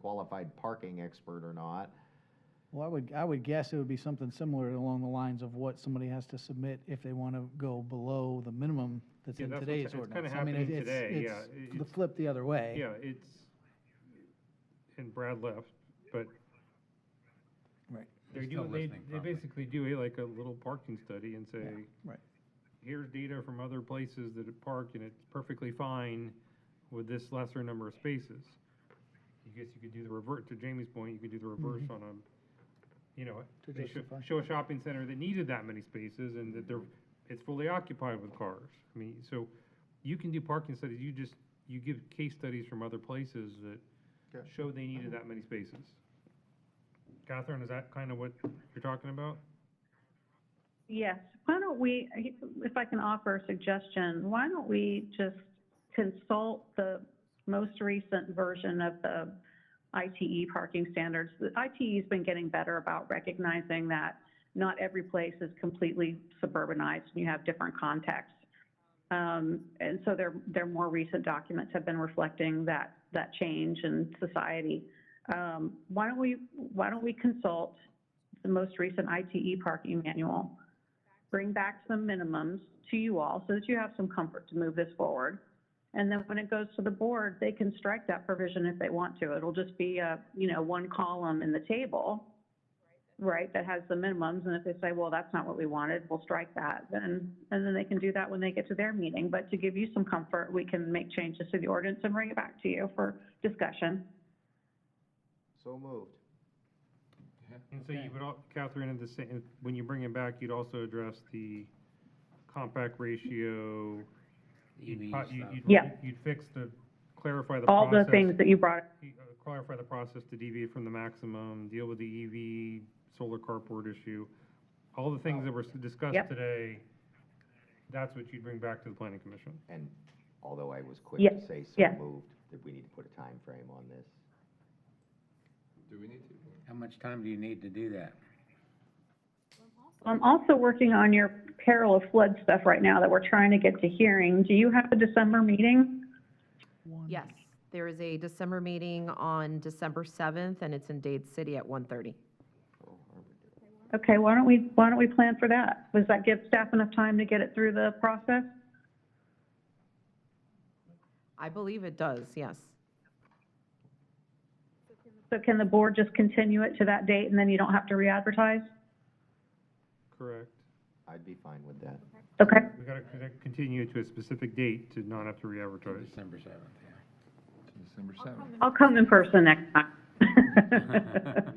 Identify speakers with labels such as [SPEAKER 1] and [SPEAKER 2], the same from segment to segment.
[SPEAKER 1] qualified parking expert or not.
[SPEAKER 2] Well, I would, I would guess it would be something similar along the lines of what somebody has to submit if they want to go below the minimum that's
[SPEAKER 3] Yeah,
[SPEAKER 2] in
[SPEAKER 3] that's what's-
[SPEAKER 2] today's
[SPEAKER 3] it's kinda
[SPEAKER 2] ordinance. I mean,
[SPEAKER 3] happening
[SPEAKER 2] it's-
[SPEAKER 3] today,
[SPEAKER 2] it's
[SPEAKER 3] yeah. It-
[SPEAKER 2] The flip the other way.
[SPEAKER 3] Yeah, it's, and Brad left, but
[SPEAKER 2] Right,
[SPEAKER 3] they're
[SPEAKER 4] He's still
[SPEAKER 3] doing, they,
[SPEAKER 4] listening
[SPEAKER 3] they
[SPEAKER 4] probably.
[SPEAKER 3] basically do a, like a little parking study and say,
[SPEAKER 2] right.
[SPEAKER 3] here's data from other places that it parked and it's perfectly fine with this lesser number of spaces. I guess you could do the revert, to Jamie's point, you could do the reverse on a, you know,
[SPEAKER 2] To
[SPEAKER 3] they should
[SPEAKER 2] justify.
[SPEAKER 3] show a shopping center that needed that many spaces and that they're, it's fully occupied with cars. I mean, so you can do parking studies, you just, you give case studies from other places that
[SPEAKER 1] Okay.
[SPEAKER 3] show they needed that many spaces. Catherine, is that kind of what you're talking about?
[SPEAKER 5] Yes, why don't we, if I can offer a suggestion, why don't we just consult the most recent version of the ITE parking standards? The ITE's been getting better about recognizing that not every place is completely suburbanized, and you have different contexts. Um, and so their, their more recent documents have been reflecting that, that change in society. Um, why don't we, why don't we consult the most recent ITE parking manual? bring back some minimums to you all so that you have some comfort to move this forward. And then when it goes to the board, they can strike that provision if they want to. It'll just be a, you know, one column in the table, right, that has the minimums. And if they say, well, that's not what we wanted, we'll strike that. Then, and then they can do that when they get to their meeting. But to give you some comfort, we can make changes to the ordinance and bring it back to you for discussion.
[SPEAKER 1] So moved.
[SPEAKER 3] And so you would, al- Catherine, in the same, when you bring it back, you'd also address the compact ratio. you'd
[SPEAKER 4] EV
[SPEAKER 3] po-
[SPEAKER 4] stuff.
[SPEAKER 3] you'd- you'd-
[SPEAKER 5] Yeah.
[SPEAKER 3] You'd fix the, clarify the
[SPEAKER 5] All
[SPEAKER 3] process.
[SPEAKER 5] the things that you brought
[SPEAKER 3] uh, Clarify the process to deviate from the maximum, deal with the EV solar carport issue. All the things that were s- discussed
[SPEAKER 5] Yep.
[SPEAKER 3] today, that's what you'd bring back to the planning commission.
[SPEAKER 1] And although I was quick
[SPEAKER 5] Yes,
[SPEAKER 1] to say so
[SPEAKER 5] yes.
[SPEAKER 1] moved, that we need to put a time frame on this.
[SPEAKER 6] Do we need to?
[SPEAKER 4] How much time do you need to do that?
[SPEAKER 5] I'm also working on your peril of flood stuff right now that we're trying to get to hearing. Do you have a December meeting?
[SPEAKER 2] One-
[SPEAKER 7] Yes, there is a December meeting on December 7th, and it's in Dade City at 1:30.
[SPEAKER 5] Okay, why don't we, why don't we plan for that? Does that give staff enough time to get it through the process?
[SPEAKER 7] I believe it does, yes.
[SPEAKER 5] So can the board just continue it to that date and then you don't have to re-advertise?
[SPEAKER 3] Correct.
[SPEAKER 1] I'd be fine with that.
[SPEAKER 5] Okay,
[SPEAKER 3] We gotta con- continue to a specific date to not have to re-advertise.
[SPEAKER 4] December seventh,
[SPEAKER 6] December seventh.
[SPEAKER 5] I'll come in person next time.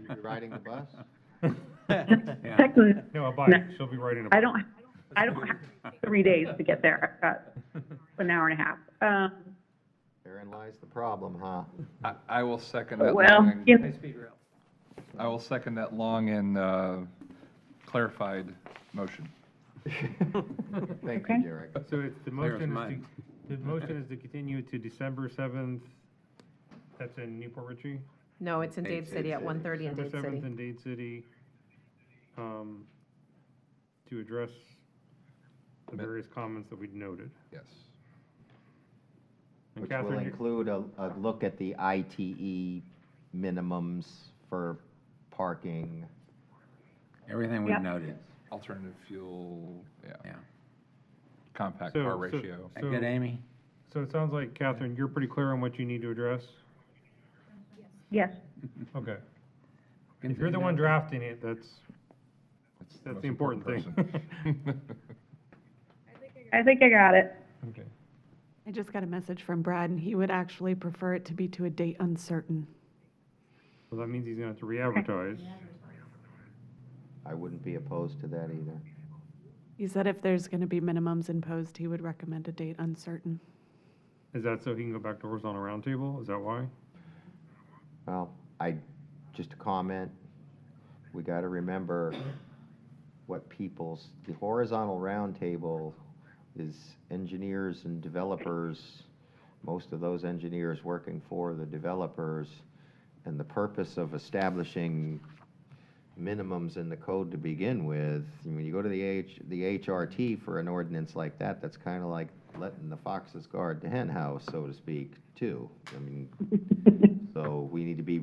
[SPEAKER 1] You're riding the bus?
[SPEAKER 4] yeah.
[SPEAKER 5] Technically,
[SPEAKER 3] No, a bike, she'll be writing a bike.
[SPEAKER 5] I don't, I don't have three days to get there. I've got an hour and a half. Um,
[SPEAKER 1] Therein lies the problem, huh?
[SPEAKER 6] I, I will second that.
[SPEAKER 5] well,
[SPEAKER 6] long and-
[SPEAKER 5] you know,
[SPEAKER 6] I will second that long and uh, clarified motion.
[SPEAKER 1] Thank
[SPEAKER 5] Okay.
[SPEAKER 1] you, Derek.
[SPEAKER 3] So it's, the
[SPEAKER 4] Clear as
[SPEAKER 3] motion is
[SPEAKER 4] mud.
[SPEAKER 3] to, the motion is to continue to December seventh, that's in Newport Ritchie?
[SPEAKER 7] No, it's in
[SPEAKER 1] Dade
[SPEAKER 7] Dade City at
[SPEAKER 1] City.
[SPEAKER 7] 1:30 in
[SPEAKER 3] December
[SPEAKER 7] Dade
[SPEAKER 3] seventh
[SPEAKER 7] City.
[SPEAKER 3] in Dade City, um, to address the
[SPEAKER 6] Ma-
[SPEAKER 3] various comments that we'd noted.
[SPEAKER 6] Yes.
[SPEAKER 3] And
[SPEAKER 1] Which will
[SPEAKER 3] Catherine, you-
[SPEAKER 1] include a, a look at the ITE minimums for parking.
[SPEAKER 4] Everything
[SPEAKER 5] Yeah.
[SPEAKER 4] we've noted,
[SPEAKER 6] Alternative fuel, yeah,
[SPEAKER 4] yeah.
[SPEAKER 6] compact
[SPEAKER 3] So-
[SPEAKER 6] car
[SPEAKER 3] so-
[SPEAKER 6] ratio.
[SPEAKER 4] That
[SPEAKER 3] So-
[SPEAKER 4] good, Amy?
[SPEAKER 3] so it sounds like, Catherine, you're pretty clear on what you need to address?
[SPEAKER 5] yes,
[SPEAKER 3] Okay. If you're the one drafting it, that's, that's the
[SPEAKER 6] most
[SPEAKER 3] important thing.
[SPEAKER 6] person.
[SPEAKER 5] I think I got it.
[SPEAKER 3] Okay.
[SPEAKER 8] I just got a message from Brad, and he would actually prefer it to be to a date uncertain.
[SPEAKER 3] Well, that means he's gonna have to re-advertise.
[SPEAKER 1] I wouldn't be opposed to that either.
[SPEAKER 8] He said if there's going to be minimums imposed, he would recommend a date uncertain.
[SPEAKER 3] Is that so he can go back to horizontal roundtable? Is that why?
[SPEAKER 1] Well, I, just a comment, we got to remember what people's, the horizontal roundtable is engineers and developers, most of those engineers working for the developers, and the purpose of establishing minimums in the code to begin with, when you go to the H, the HRT for an ordinance like that, that's kind of like letting the foxes guard the hen house, so to speak, too. I mean, so we need to be